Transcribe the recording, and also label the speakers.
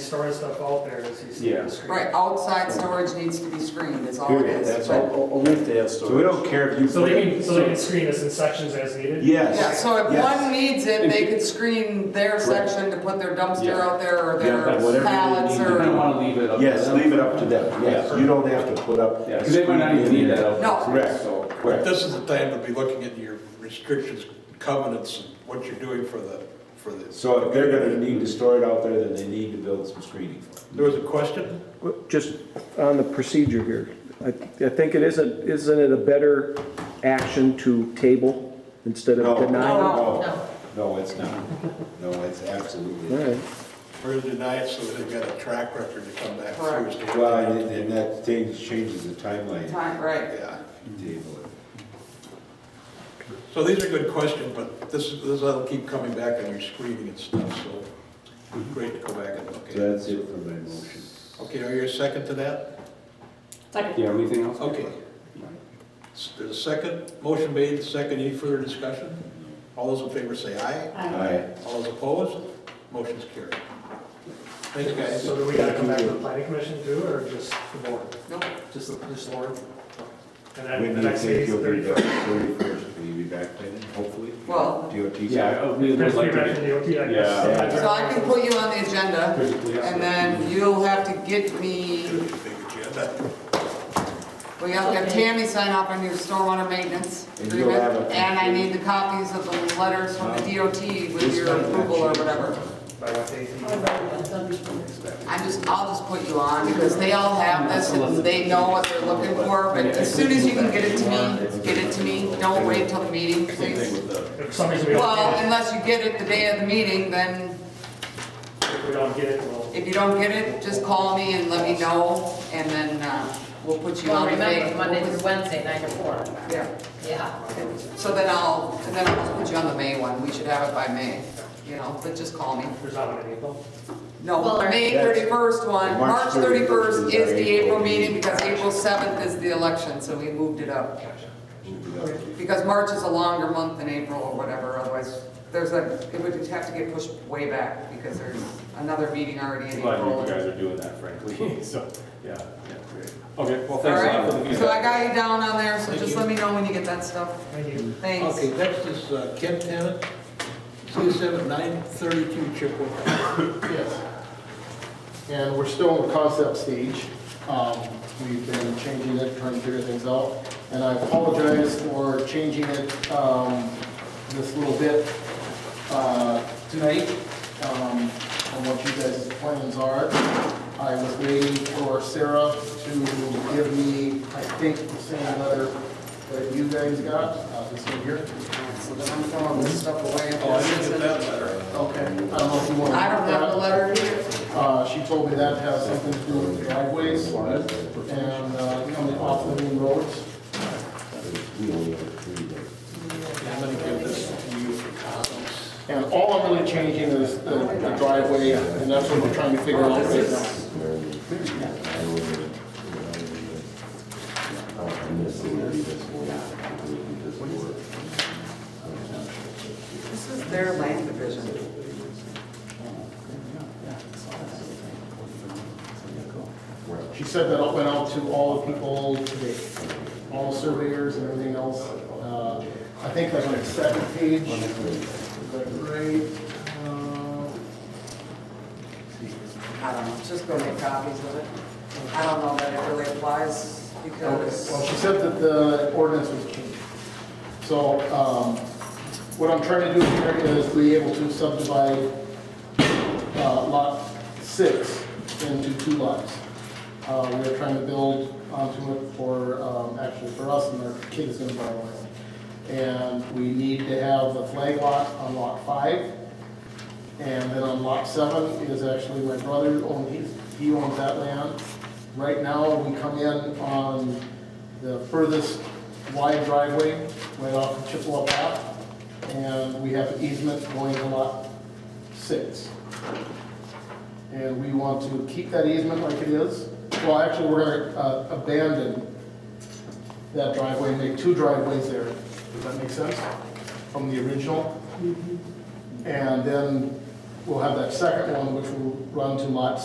Speaker 1: storing stuff out there, as you see
Speaker 2: Yeah.
Speaker 1: the screen.
Speaker 3: Right, outside storage needs to be screened, is all it
Speaker 2: Period,
Speaker 3: is.
Speaker 2: that's
Speaker 3: but-
Speaker 2: all, only if they have storage.
Speaker 4: So we don't care if you.
Speaker 1: So they can, so they can screen this in sections as needed?
Speaker 3: Yeah,
Speaker 4: Yes.
Speaker 3: so if
Speaker 4: Yes.
Speaker 3: one needs it, they could screen their section to put their dumpster
Speaker 2: Yeah.
Speaker 3: out there or
Speaker 2: Yeah, whatever
Speaker 3: their
Speaker 2: they
Speaker 3: pallets
Speaker 2: need to
Speaker 3: or.
Speaker 2: do.
Speaker 5: I want to leave it up.
Speaker 4: Yes, leave it up to them, yes, you don't have to put up.
Speaker 5: Yeah, because they might not even need that out.
Speaker 3: No.
Speaker 4: Correct,
Speaker 5: So,
Speaker 6: But
Speaker 4: correct.
Speaker 6: this is the time to be looking at your restrictions, covenants, and what you're doing for the, for the,
Speaker 4: So if they're gonna need to store it out there, then they need to build some screening.
Speaker 6: there was a question?
Speaker 7: Well, Just on the procedure here, I, I think it isn't, isn't it a better action to table instead
Speaker 4: No,
Speaker 7: of
Speaker 4: no,
Speaker 7: deny?
Speaker 4: no, no, it's not, no, it's absolutely.
Speaker 7: All
Speaker 4: not.
Speaker 7: right.
Speaker 6: We're gonna deny it so they've got a track record to come back
Speaker 3: Correct.
Speaker 6: Thursday.
Speaker 4: Well, and- and that thing changes the timeline.
Speaker 3: Time, right.
Speaker 6: Yeah.
Speaker 4: Table it.
Speaker 6: So these are good questions, but this, this will keep coming back on your screening and stuff, so it's great to go back and look at.
Speaker 4: So that's it for my motion.
Speaker 6: Okay, are you a second to that?
Speaker 5: yeah, anything else?
Speaker 6: Okay. S- There's a second, motion made, second, any further discussion? All those in favor say aye.
Speaker 4: Aye.
Speaker 6: All those opposed, motion's carried. Thanks, guys.
Speaker 1: So do we gotta come back to the planning commission too, or just the board?
Speaker 3: Nope.
Speaker 1: Just, the- just Lauren? And
Speaker 4: We
Speaker 1: then the
Speaker 4: need to
Speaker 1: next
Speaker 4: think
Speaker 1: meeting's
Speaker 4: you'll
Speaker 1: the
Speaker 4: be
Speaker 1: thirty-first.
Speaker 4: back thirty-first, will you be back by then, hopefully?
Speaker 3: Well-
Speaker 4: DOT's.
Speaker 5: Yeah, I- we would
Speaker 1: Next
Speaker 5: like
Speaker 1: meeting,
Speaker 5: to
Speaker 1: back to
Speaker 5: get,
Speaker 1: the OT, I
Speaker 5: Yeah.
Speaker 1: guess.
Speaker 3: So I can put you on the agenda,
Speaker 5: Physically, yeah.
Speaker 3: and then you'll have to get me,
Speaker 6: Big agenda.
Speaker 3: we have to have Tammy sign off on your stormwater maintenance
Speaker 4: And you'll have
Speaker 3: agreement,
Speaker 4: a-
Speaker 3: and I need the copies of the letters from the DOT with your approval or whatever.
Speaker 1: By what date?
Speaker 3: I'm just, I'll just put you on, because they all have this, and they know what they're looking for, but as soon as you can get it to me, get it to me, don't wait till the meeting, please.
Speaker 1: If for some reason we
Speaker 3: Well,
Speaker 1: don't, get
Speaker 3: unless you get it the day of the meeting, then
Speaker 1: it- if we don't get it, we'll.
Speaker 3: if you don't get it, just call me and let me know, and then, uh, we'll put you
Speaker 8: Well,
Speaker 3: on the
Speaker 8: remember,
Speaker 3: main.
Speaker 8: Monday through Wednesday, nine to four.
Speaker 3: Yeah,
Speaker 8: Yeah.
Speaker 3: so then I'll, and then I'll just put you on the May one, we should have it by May, you know, but just call me.
Speaker 1: There's not one in April.
Speaker 3: No,
Speaker 8: Well,
Speaker 3: the May
Speaker 4: that's-
Speaker 3: thirty-first one, March
Speaker 4: March
Speaker 3: thirty-first is
Speaker 4: 31st is our
Speaker 3: the April
Speaker 4: April
Speaker 3: meeting
Speaker 4: meeting.
Speaker 3: because April seventh is the election, so we moved it up. Because March is a longer month than April or whatever, otherwise, there's a, it would have to get pushed way back because there's another meeting already in
Speaker 5: glad you guys
Speaker 3: April.
Speaker 5: are doing that frankly, so, yeah, yeah, great. Okay, well,
Speaker 3: All
Speaker 5: thanks a lot for the
Speaker 3: right, so I
Speaker 5: feedback.
Speaker 3: got you down on there, so
Speaker 6: Thank
Speaker 3: just
Speaker 6: you.
Speaker 3: let me know when you get that stuff.
Speaker 1: Thank you.
Speaker 3: Thanks.
Speaker 6: Okay, next is uh, Ken Tennant, CSM at nine thirty-two Chippewa.
Speaker 9: Yes. And we're still in the concept stage. Um, We've been changing it, trying to figure things out. And I apologize for changing it um, this little bit uh, tonight um, on what you guys' plans are. I was waiting for Sarah to give me, I think, the same letter that you guys got, uh, this one here.
Speaker 3: So then I'm throwing this stuff away.
Speaker 6: Oh, I didn't get that letter.
Speaker 9: Okay, I don't know if you want to.
Speaker 3: I don't have the letter here.
Speaker 9: Uh, she told me that has something to do with driveways and, uh, coming off the main roads.
Speaker 4: We only have three days.
Speaker 6: I'm gonna give this to you for comments.
Speaker 9: And all I'm really changing is the the driveway, and that's what we're trying to figure out right now.
Speaker 3: This is their land division.
Speaker 9: She said that it went out to all the people today, all surveyors and everything else. Uh, I think like on the second page, like right, uh,
Speaker 3: I don't know, just go make copies of it. I don't know that it really applies because.
Speaker 9: Well, she said that the ordinance was changed. So, um, what I'm trying to do here is be able to subdivide, uh, lot six into two lots. Uh, we're trying to build onto it for, um, actually for us and our kid is gonna borrow it. And we need to have the flag lot on lot five. And then on lot seven is actually my brother owns, he's- he owns that land. Right now, we come in on the furthest wide driveway, right off of Chippewa Path. And we have easement going to lot six. And we want to keep that easement like it is. Well, actually, we're gonna uh, abandon that driveway, make two driveways there. Does that make sense? From the original? And then we'll have that second one, which will run to lot